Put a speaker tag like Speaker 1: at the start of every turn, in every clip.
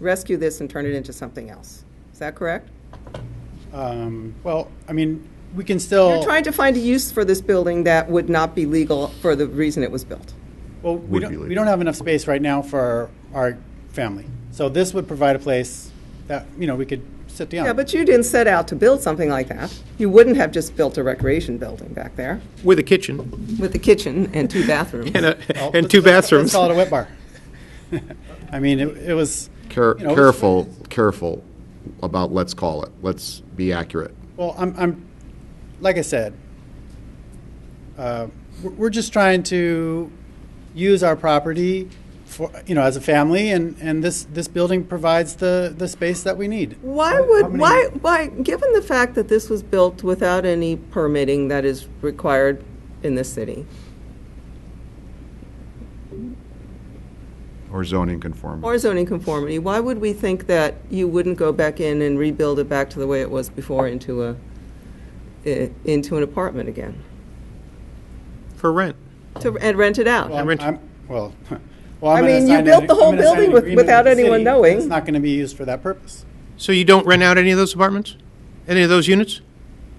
Speaker 1: rescue this and turn it into something else. Is that correct?
Speaker 2: Um, Well, I mean, we can still.
Speaker 1: You're trying to find a use for this building that would not be legal for the reason it was built.
Speaker 2: Well, we
Speaker 3: Would be
Speaker 2: don't, we
Speaker 3: legal.
Speaker 2: don't have enough space right now for our family. So this would provide a place that, you know, we could sit down.
Speaker 3: Uh.
Speaker 1: Yeah, but you didn't set out to build something like that. You wouldn't have just built a recreation building back there
Speaker 3: With a kitchen
Speaker 1: with a kitchen and two bathrooms.
Speaker 3: and, a,
Speaker 2: Well,
Speaker 3: and
Speaker 2: let's-
Speaker 3: two
Speaker 2: let's- Let's
Speaker 3: bathrooms.
Speaker 2: call it a wet bar. I mean, it it was.
Speaker 4: Care-
Speaker 2: you know,
Speaker 4: Careful, careful about let's call it. Let's be accurate.
Speaker 2: Well, I'm, I'm, like I said, uh, we're we're just trying to use our property for, you know, as a family, and, and this, this building provides the, the space that we need.
Speaker 1: Why would, why, why, given the fact that this was built without any permitting that is required in this city,
Speaker 4: Or zoning conformity.
Speaker 1: or zoning conformity, why would we think that you wouldn't go back in and rebuild it back to the way it was before into a, i- into an apartment again?
Speaker 3: For rent.
Speaker 1: To, and rent it out?
Speaker 2: Well,
Speaker 3: rent-
Speaker 2: I'm- Well, well, I'm
Speaker 1: I
Speaker 2: gonna
Speaker 1: mean, you
Speaker 2: sign an-
Speaker 1: built the
Speaker 2: I'm
Speaker 1: whole
Speaker 2: gonna sign an
Speaker 1: building with-
Speaker 2: agreement
Speaker 1: without
Speaker 2: the city
Speaker 1: anyone
Speaker 2: that
Speaker 1: knowing.
Speaker 2: It's not going to be used for that purpose.
Speaker 3: So you don't rent out any of those apartments? Any of those units?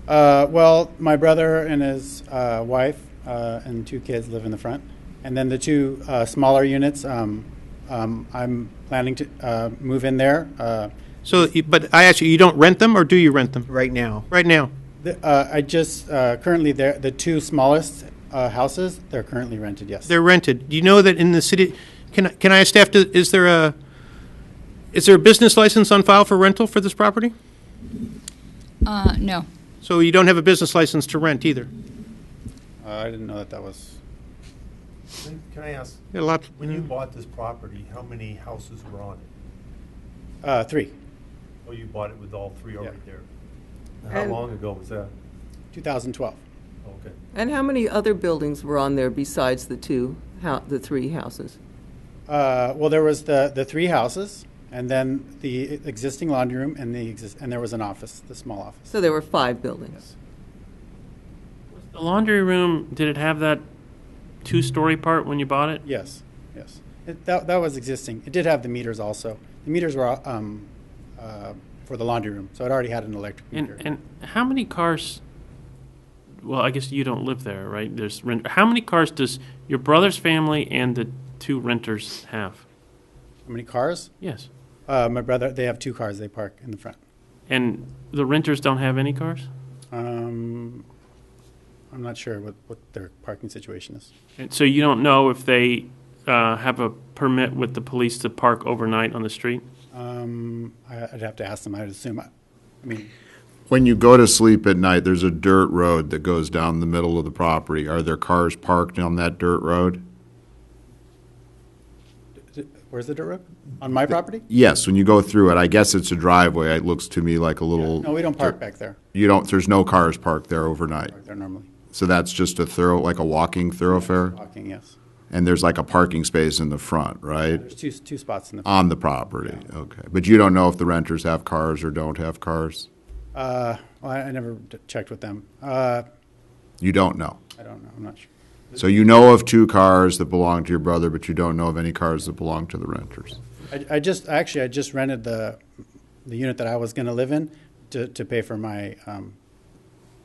Speaker 2: Uh, well, my brother and his uh, wife uh, and two kids live in the front, and then the two uh, smaller units. Um, um, I'm planning to uh, move in there. Uh,
Speaker 3: So, you- but I ask you, you don't rent them or do you rent them? Right now. Right now.
Speaker 2: the, uh, I just uh, currently there the two smallest uh, houses. They're currently rented. Yes.
Speaker 3: They're rented. Do you know that in the city, can, I- can I ask staff, to- is there a, is there a business license on file for rental for this property?
Speaker 5: Uh, no.
Speaker 3: So you don't have a business license to rent either?
Speaker 2: uh, I didn't know that that was.
Speaker 6: Can can I ask,
Speaker 3: Got a lot-
Speaker 6: when you bought this property, how many houses were on it?
Speaker 2: Uh, three,
Speaker 6: Oh, you bought it with all three already there? How
Speaker 4: Um,
Speaker 1: And-
Speaker 6: long ago was that?
Speaker 2: 2012.
Speaker 6: Okay.
Speaker 1: And how many other buildings were on there besides the two, hou- the three houses?
Speaker 2: Uh, well, there was the, the three houses, and then the existing laundry room, and the exist- and there was an office, the small office.
Speaker 1: So there were five buildings.
Speaker 7: The laundry room, did it have that two story part when you bought it?
Speaker 2: Yes, yes. It, that, that was existing. It did have the meters also. The meters were um, uh, for the laundry room, so it already had an electric
Speaker 7: And,
Speaker 2: meter.
Speaker 7: and how many cars? Well, I guess you don't live there, right? There's rent. How many cars does your brother's family and the two renters have?
Speaker 2: How many cars?
Speaker 7: Yes.
Speaker 2: Uh, my brother, they have two cars. They park in the front.
Speaker 7: And the renters don't have any cars?
Speaker 2: Um, I'm not sure what, what their parking situation is.
Speaker 7: And so you don't know if they uh, have a permit with the police to park overnight on the street?
Speaker 2: Um, I, I'd have to ask them. I'd assume. I, I mean,
Speaker 4: When you go to sleep at night, there's a dirt road that goes down the middle of the property. Are there cars parked on that dirt road?
Speaker 2: d- d- where's the dirt road? On my property?
Speaker 4: Yes, when you go through it, I guess it's a driveway. It looks to me like a little.
Speaker 2: No, we don't park back there.
Speaker 4: You don't, there's no cars parked there overnight.
Speaker 2: Park there normally.
Speaker 4: So that's just a thorough, like a walking thoroughfare?
Speaker 2: Walking, yes.
Speaker 4: And there's like a parking space in the front, right?
Speaker 2: There's two two spots in the.
Speaker 4: On the property, okay. But you don't know if the renters have cars or don't have cars?
Speaker 2: Uh, well, I, I never d- checked with them. Uh,
Speaker 4: You don't know.
Speaker 2: I don't know. I'm not sure.
Speaker 4: So you know of two cars that belong to your brother, but you don't know of any cars that belong to the renters.
Speaker 2: I, I just actually I just rented the the unit that I was going to live in to, to pay for my um,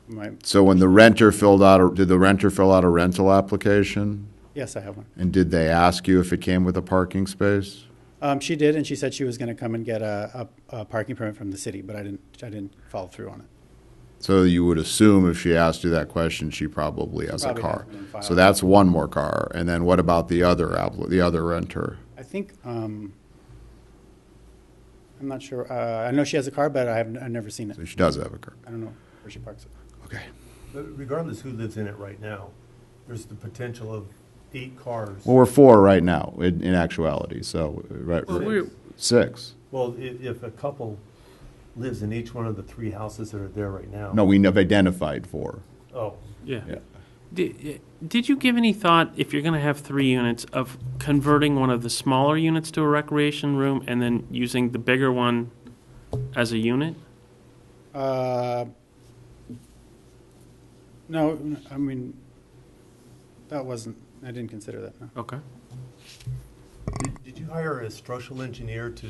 Speaker 2: my
Speaker 4: So when the renter filled out, a- did the renter fill out a rental application?
Speaker 2: yes I have one.
Speaker 4: And did they ask you if it came with a parking space?
Speaker 2: Um, she did, and she said she was going to come and get a, a, a parking permit from the city, but I didn't I didn't follow through on it.
Speaker 4: So you would assume if she asked you that question, she probably has a
Speaker 2: probably
Speaker 4: car.
Speaker 2: has one filed.
Speaker 4: So that's one more car. And then what about the other appli- the other renter?
Speaker 2: I think um, I'm not sure. Uh, I know she has a car, but I haven't I've never seen it.
Speaker 4: So she does have a car.
Speaker 2: I don't know where she parks it.
Speaker 4: Okay.
Speaker 6: But regardless who lives in it right now, there's the potential of eight cars.
Speaker 4: Well, we're four right now in, in actuality. So right,
Speaker 6: Well, we're-
Speaker 4: six.
Speaker 6: Well, if, if a couple lives in each one of the three houses that are there right now.
Speaker 4: No, we have identified four.
Speaker 6: Oh,
Speaker 7: Yeah.
Speaker 4: Yeah.
Speaker 7: Did, eh, did you give any thought, if you're going to have three units, of converting one of the smaller units to a recreation room and then using the bigger one as a unit?
Speaker 2: Uh, no, n- I mean that wasn't. I didn't consider that. No.
Speaker 7: Okay.
Speaker 6: did- did you hire a structural engineer to